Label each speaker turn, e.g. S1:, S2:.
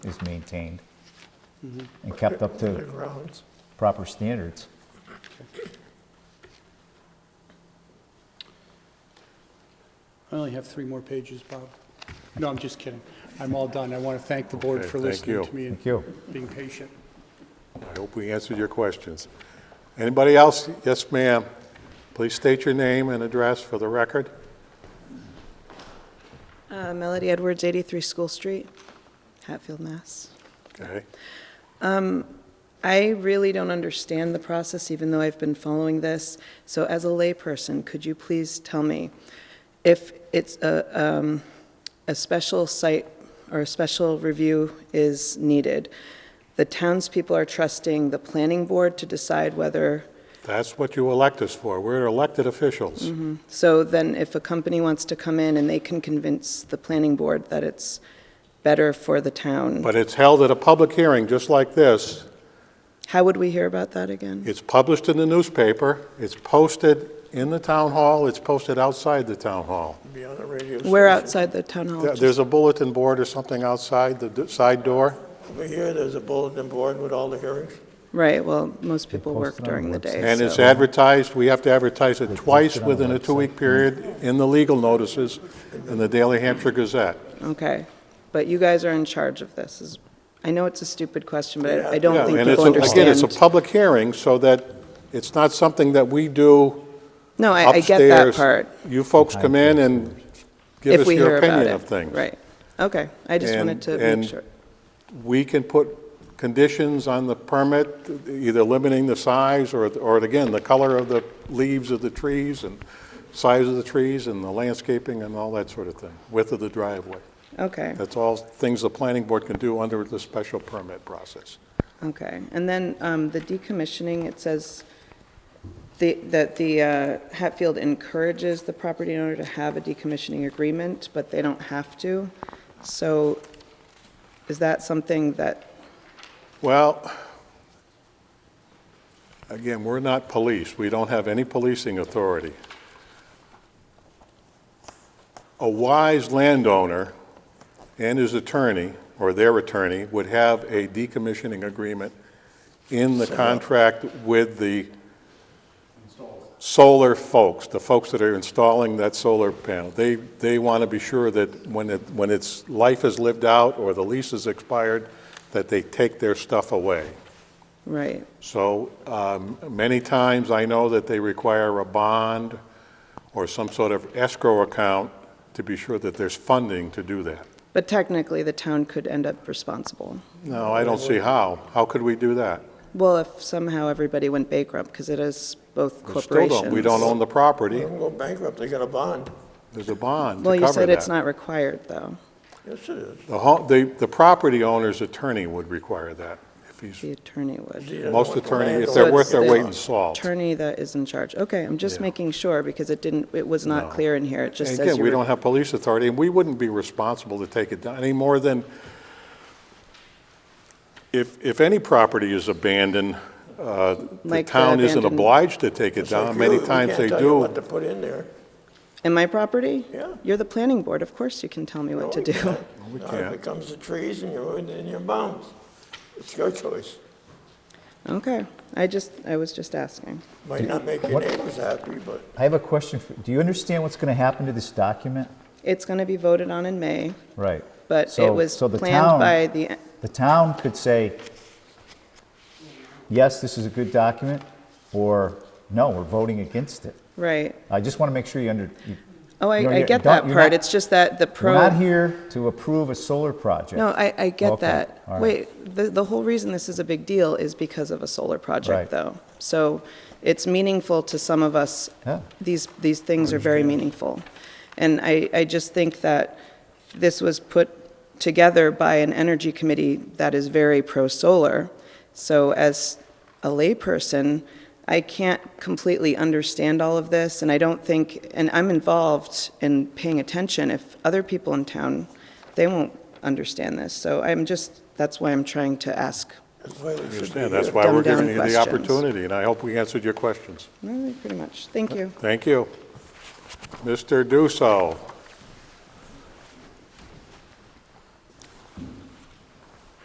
S1: is maintained and kept up
S2: The
S1: to
S2: grounds.
S1: proper standards.
S3: I only have three more pages, Bob. No, I'm just kidding. I'm all done. I want to thank the board
S4: Okay,
S3: for
S4: thank
S3: listening
S4: you.
S3: to me
S1: Thank you.
S3: and being patient.
S4: I hope we answered your questions. Anybody else? Yes, ma'am. Please state your name and address for the record.
S5: Uh, Melody Edwards, 83 School Street, Hatfield, Mass.
S4: Okay.
S5: I really don't understand the process, even though I've been following this. So as a layperson, could you please tell me if it's a, um, a special site or a special review is needed? The townspeople are trusting the planning board to decide whether,
S4: That's what you elect us for. We're elected officials.
S5: so then if a company wants to come in and they can convince the planning board that it's better for the town,
S4: But it's held at a public hearing, just like this.
S5: how would we hear about that again?
S4: It's published in the newspaper, it's posted in the town hall, it's posted outside the town hall.
S2: Be on the radio station.
S5: We're outside the town hall.
S4: There- There's a bulletin board or something outside the d- side door.
S2: Over here, there's a bulletin board with all the hearings.
S5: Right, well, most people
S1: post
S5: work
S1: it on the
S5: during the day.
S1: website.
S4: And it's
S5: so-
S4: advertised, we have to advertise it twice
S1: posted on the
S4: within a
S1: website.
S4: two-week period in the legal notices in the Daily Hampshire Gazette.
S5: Okay, but you guys are in charge of this. is- I know it's a stupid question, but I- I
S4: Yeah,
S5: don't think
S4: and
S5: people
S4: it's a- Again, it's a
S5: understand.
S4: public hearing, so that it's not something that we do
S5: No, I, I
S4: upstairs.
S5: get that part,
S4: You folks come in and give
S5: if
S4: us
S5: we hear
S4: your
S5: about
S4: opinion
S5: it.
S4: of things.
S5: Right, okay, I just wanted
S4: And-
S5: to
S4: and-
S5: make sure.
S4: We can put conditions on the permit, either limiting the size or, or again, the color of the leaves of the trees and size of the trees and the landscaping and all that sort of thing, width of the driveway.
S5: Okay,
S4: That's all things the planning board can do under the special permit process.
S5: okay. And then um, the decommissioning, it says the- that the uh, Hatfield encourages the property owner to have a decommissioning agreement, but they don't have to. So is that something that
S4: Well, again, we're not police. We don't have any policing authority. A wise landowner and his attorney, or their attorney, would have a decommissioning agreement in the contract with the solar folks, the folks that are installing that solar panel. They, they want to be sure that when it, when its life is lived out or the lease is expired, that they take their stuff away.
S5: Right,
S4: So um, many times, I know that they require a bond or some sort of escrow account to be sure that there's funding to do that.
S5: but technically, the town could end up responsible.
S4: No, I don't see how. How could we do that?
S5: Well, if somehow everybody went bankrupt, because it is both
S4: We still
S5: corporations.
S4: don't. We don't own the property.
S2: They can go bankrupt, they got a bond.
S4: There's a bond to cover that.
S5: Well, you said it's not required, though,
S2: Yes, it is.
S4: The ho- The, the property owner's attorney would require that if he's
S5: the attorney would.
S4: Most attorney, if
S5: So
S4: they're
S5: it's
S4: worth their
S5: the
S4: weight in salt.
S5: Attorney that is in charge. Okay, I'm just
S4: Yeah.
S5: making sure, because it didn't, it was
S4: No.
S5: not clear in here. It just
S4: And
S5: says
S4: Again, we
S5: you're,
S4: don't have police authority, and we wouldn't be responsible to take it down any more than if, if any property is abandoned, uh, the
S5: Like the
S4: town isn't
S5: abandoned-
S4: obliged to take it
S2: It's like
S4: down. Many
S2: you- we
S4: times
S2: can't
S4: they
S2: tell you
S4: do.
S2: what to put in there.
S5: in my property?
S2: Yeah.
S5: You're the planning board, of course you can tell me
S4: Oh,
S5: what to do.
S2: Now
S4: can't.
S2: it becomes the trees and you're, and you're bound. It's your choice.
S5: Okay, I just, I was just asking.
S2: Might not make your neighbors happy, but
S1: I have a question. for- Do you understand what's going to happen to this document?
S5: It's going to be voted on in May,
S1: Right.
S5: but it
S1: So-
S5: was
S1: so the
S5: planned
S1: town-
S5: by the,
S1: The town could say, yes, this is a good document, or no, we're voting against it.
S5: right.
S1: I just want to make sure you under, you-
S5: Oh,
S1: You know,
S5: I, I
S1: you're-
S5: get
S1: don't-
S5: that
S1: you're
S5: part,
S1: not-
S5: it's just that the
S1: we're
S5: pro.
S1: not here to approve a solar project.
S5: No, I, I get
S1: Okay,
S5: that.
S1: all right.
S5: Wait, the, the whole reason this is a big deal is because of a solar
S1: Right.
S5: project, though. So it's meaningful to some of us.
S1: Yeah.
S5: These, these things are very meaningful. And I, I just think that this was put together by an energy committee that is very pro-solar. So as a layperson, I can't completely understand all of this, and I don't think, and I'm involved in paying attention. If other people in town, they won't understand this. So I'm just, that's why I'm trying to ask.
S2: that's why they should be
S4: Understand, that's
S2: here.
S4: why we're
S5: Dumb-down
S4: giving you the
S5: questions.
S4: opportunity, and I hope we answered your questions.
S5: Well, Pretty much. Thank you.
S4: Thank you. Mr. Dusso,